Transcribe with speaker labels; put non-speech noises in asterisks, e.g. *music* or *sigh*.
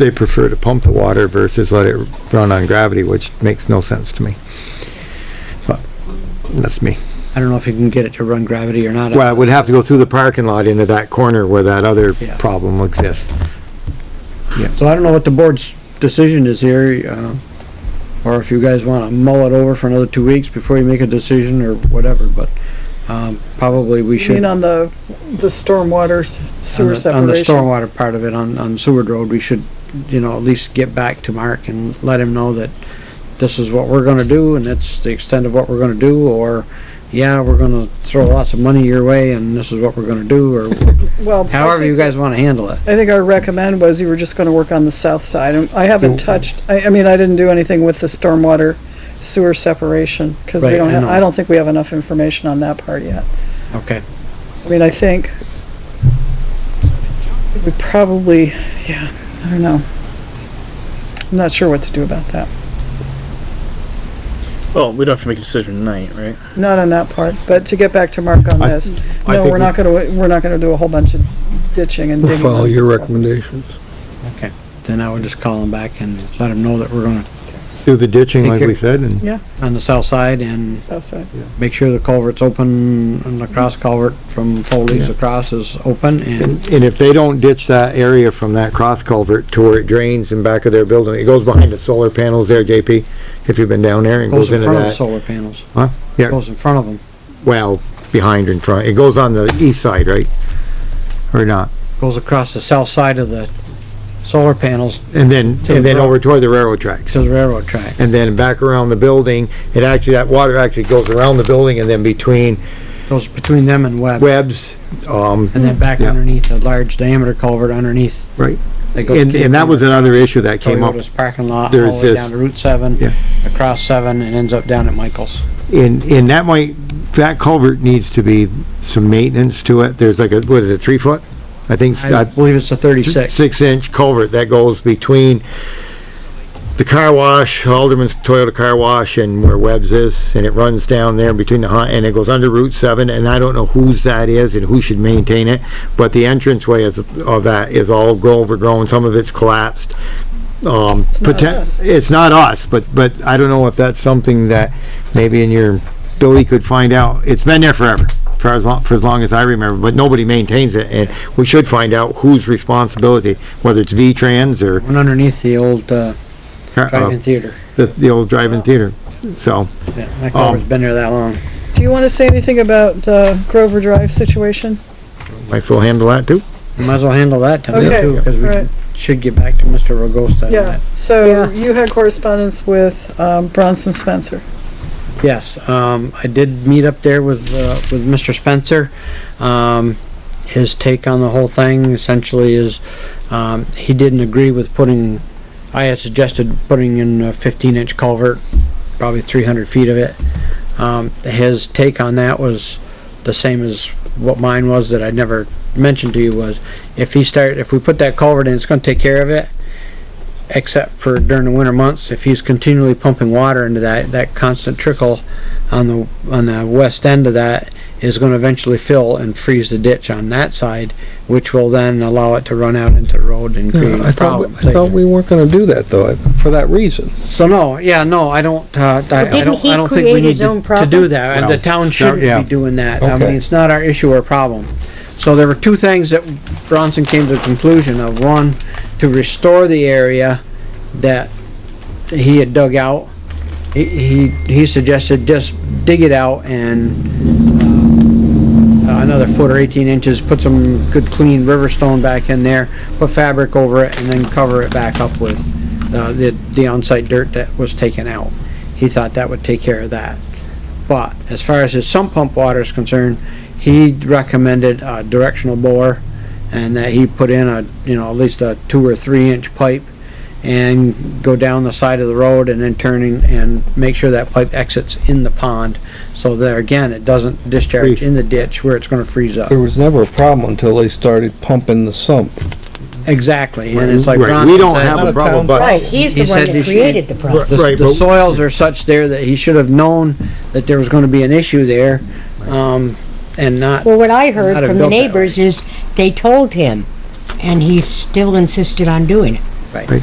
Speaker 1: they prefer to pump the water versus let it run on gravity, which makes no sense to me. But that's me.
Speaker 2: I don't know if you can get it to run gravity or not.
Speaker 1: Well, it would have to go through the parking lot into that corner where that other
Speaker 2: Yeah.
Speaker 1: problem exists.
Speaker 2: So I don't know what the board's decision is here, uh, or if you guys wanna mull it over for another two weeks before you make a decision or whatever, but, um, probably we
Speaker 3: You
Speaker 2: should.
Speaker 3: mean on the, the stormwater s-
Speaker 2: on
Speaker 3: sewer
Speaker 2: the- On the
Speaker 3: separation?
Speaker 2: stormwater part of it, on, on Seward Road, we should, you know, at least get back to Mark and let him know that this is what we're gonna do, and that's the extent of what we're gonna do, or, yeah, we're gonna throw lots of money your way, and this is what we're gonna do, or
Speaker 3: Well, I
Speaker 2: however you
Speaker 3: think,
Speaker 2: guys wanna handle it.
Speaker 3: I think our recommend was you were just gonna work on the south side. And I haven't touched, I, I mean, I didn't do anything with the stormwater sewer separation, cause we
Speaker 2: Right,
Speaker 3: don't,
Speaker 2: I
Speaker 3: have-
Speaker 2: know.
Speaker 3: I don't think we have enough information on that part yet.
Speaker 2: Okay.
Speaker 3: I mean, I think we probably, yeah, I don't know. I'm not sure what to do about that.
Speaker 4: Well, we don't have to make a decision tonight, right?
Speaker 3: Not on that part, but to get back to Mark on
Speaker 1: I-
Speaker 3: this,
Speaker 1: I
Speaker 3: no,
Speaker 1: think
Speaker 3: we're not gonna, we're not gonna do a whole bunch of ditching and
Speaker 5: We'll
Speaker 3: digging.
Speaker 5: follow
Speaker 3: on
Speaker 5: your
Speaker 3: this.
Speaker 5: recommendations.
Speaker 2: Then I would just call him back and let him know that we're gonna,
Speaker 1: Through the ditching
Speaker 2: Take
Speaker 1: like
Speaker 2: care. *laughs*
Speaker 1: we said and
Speaker 2: on the south side, and
Speaker 3: South side.
Speaker 2: make sure the culvert's open, and the cross culvert from Foley's
Speaker 1: Yeah.
Speaker 2: across is open, and,
Speaker 1: And, and if they don't ditch that area from that cross culvert to where it drains in back of their building, it goes behind the solar panels there, JP, if you've been down there and
Speaker 2: goes
Speaker 1: goes
Speaker 2: in
Speaker 1: into
Speaker 2: front of the
Speaker 1: that,
Speaker 2: solar panels.
Speaker 1: Huh? Yeah.
Speaker 2: Goes in front of them,
Speaker 1: well, behind and front, it goes on the east side, right? Or not?
Speaker 2: goes across the south side of the solar panels
Speaker 1: And then,
Speaker 2: To
Speaker 1: and then
Speaker 2: the-
Speaker 1: over toward the railroad tracks.
Speaker 2: to the railroad track.
Speaker 1: And then back around the building, it actually, that water actually goes around the building and then between
Speaker 2: Goes between them and Webb,
Speaker 1: webs, um,
Speaker 2: and then back
Speaker 1: Yeah.
Speaker 2: underneath a large diameter culvert underneath.
Speaker 1: right?
Speaker 2: that goes
Speaker 1: And, and that was another issue that came up
Speaker 2: Toyota's parking lot, all
Speaker 1: There's
Speaker 2: the way
Speaker 1: this-
Speaker 2: down to Route seven,
Speaker 1: Yeah.
Speaker 2: across seven, and ends up down at Michael's.
Speaker 1: And, and that might, that culvert needs to be some maintenance to it. There's like a, what is it, three foot? I think, it's
Speaker 2: I
Speaker 1: got
Speaker 2: believe it's a thirty-six.
Speaker 1: six inch culvert that goes between the car wash, Alderman's Toyota Car Wash and where Webb's is, and it runs down there between the, hi- and it goes under Route seven, and I don't know whose that is and who should maintain it, but the entranceway is, of that is all grow- overgrown, some of it's collapsed. Um,
Speaker 3: It's not
Speaker 1: poten-
Speaker 3: us.
Speaker 1: it's not us, but, but I don't know if that's something that maybe in your, Billy could find out. It's been there forever, for as long, for as long as I remember, but nobody maintains it, and we should find out whose responsibility, whether it's V-Trans or,
Speaker 2: One underneath the old, uh,
Speaker 1: uh,
Speaker 2: drive-in theater.
Speaker 1: the, the old drive-in theater, so.
Speaker 2: Yeah, that culvert's been there that long.
Speaker 3: Do you wanna say anything about, uh, Grover Drive situation?
Speaker 1: Might as well handle that too.
Speaker 2: We Might as well handle that
Speaker 3: Okay,
Speaker 2: tonight too, because
Speaker 3: right.
Speaker 2: we should get back to Mr. Rogosta. on
Speaker 3: Yeah,
Speaker 2: that.
Speaker 3: so
Speaker 2: Yeah.
Speaker 3: you had correspondence with, um, Bronson Spencer.
Speaker 2: Yes, um, I did meet up there with, uh, with Mr. Spencer. Um, his take on the whole thing essentially is, um, he didn't agree with putting, I had suggested putting in a fifteen inch culvert, probably three hundred feet of it. Um, his take on that was the same as what mine was that I never mentioned to you was, if he start, if we put that culvert in, it's gonna take care of it except for during the winter months, if he's continually pumping water into that, that constant trickle on the, on the west end of that is gonna eventually fill and freeze the ditch on that side, which will then allow it to run out into the road and create
Speaker 5: Yeah, I
Speaker 2: problems.
Speaker 5: thought, we- I
Speaker 2: later.
Speaker 5: thought we weren't gonna do that though, for that reason.
Speaker 2: So no, yeah, no, I don't, uh, I I
Speaker 6: didn't
Speaker 2: don't,
Speaker 6: he
Speaker 2: I don't think we
Speaker 6: create
Speaker 2: need
Speaker 6: his
Speaker 2: to
Speaker 6: own
Speaker 2: to do
Speaker 6: problem?
Speaker 2: that, and
Speaker 1: No.
Speaker 2: the town
Speaker 1: So-
Speaker 2: shouldn't
Speaker 1: yeah.
Speaker 2: be doing that. I mean,
Speaker 5: Okay.
Speaker 2: it's not our issue or problem. So there were two things that Bronson came to the conclusion of. One, to restore the area that he had dug out. He, he he suggested just dig it out and uh, another foot or 18 inches, put some good clean river stone back in there, put fabric over it, and then cover it back up with uh, the, the on-site dirt that was taken out. He thought that would take care of that. But as far as his sump pump water is concerned, he recommended a directional bore and that he put in a, you know, at least a two or three inch pipe and go down the side of the road and then turning and make sure that pipe exits in the pond. So there again, it doesn't discharge
Speaker 1: Freeze.
Speaker 2: in the ditch where it's gonna freeze up.
Speaker 5: There was never a problem until they started pumping the sump.
Speaker 2: Exactly, and it's like
Speaker 1: Right,
Speaker 2: Ron
Speaker 1: we don't
Speaker 2: said,
Speaker 1: have a problem, but
Speaker 6: Right, he's the
Speaker 2: He
Speaker 6: one
Speaker 2: said they
Speaker 6: that
Speaker 2: should-
Speaker 6: created the problem.
Speaker 2: the,
Speaker 1: Right,
Speaker 2: the
Speaker 1: but-
Speaker 2: soils are such there that he should have known that there was going to be an issue there, um, and not.
Speaker 6: Well, what I
Speaker 2: Not
Speaker 6: heard
Speaker 2: have
Speaker 6: from the
Speaker 2: built that way.
Speaker 6: neighbors is they told him, and he still insisted on doing it.
Speaker 2: Right.